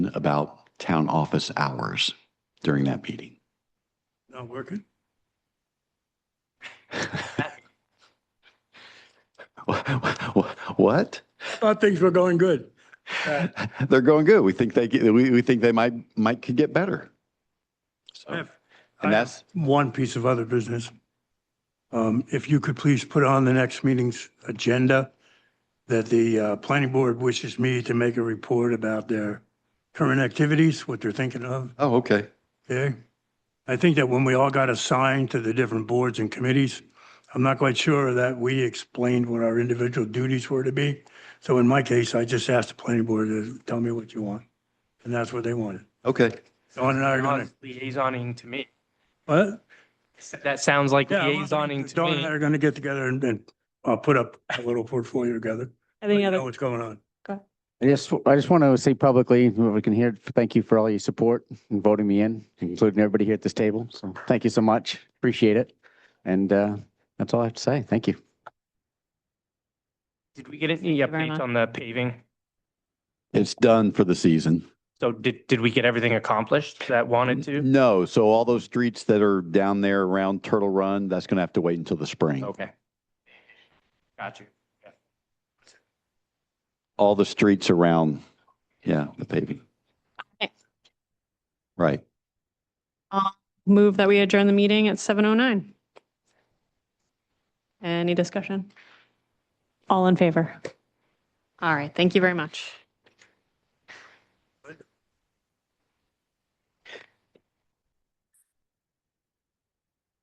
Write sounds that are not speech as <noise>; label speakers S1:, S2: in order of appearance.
S1: about town office hours during that meeting. <laughs>
S2: Not working?
S1: What?
S2: I thought things were going good. Uh,
S1: They're going good. We think they, get- we, we think they might, might could get better.
S2: I
S1: So,
S2: have- I
S1: Oh. and
S2: have
S1: that's,
S2: One piece of other business. Um, If you could please put on the next meeting's agenda that the uh, planning board wishes me to make a report about their current activities, what they're thinking of,
S1: oh, okay.
S2: okay? I think that when we all got assigned to the different boards and committees, I'm not quite sure that we explained what our individual duties were to be. So in my case, I just asked the planning board to tell me what you want, and that's what they wanted.
S1: Okay.
S2: Dawn and I are
S3: That
S2: gonna,
S3: was liaisoning to me.
S2: what?
S3: That sounds like
S2: Yeah,
S3: liaisoning to
S2: Dawn and I
S3: me.
S2: are gonna get together and, and uh, put up a little portfolio together.
S4: Any
S2: Know
S4: other,
S2: what's going on.
S5: I just, I just want to say publicly, whoever can hear, thank you for all your support and voting me in, including everybody here at this table. So thank you so much. Appreciate it. And uh, that's all I have to say. Thank you.
S3: Did we get any
S4: you very
S3: updates
S4: much.
S3: on the paving?
S1: It's done for the season.
S3: So did, did we get everything accomplished that wanted to?
S1: No, so all those streets that are down there around Turtle Run, that's going to have to wait until the spring.
S3: Okay. Got you.
S1: All the streets around, yeah, the paving.
S4: Okay.
S1: Right.
S4: move that we adjourn the meeting at 7:09? Any discussion? All in favor? All right, thank you very much.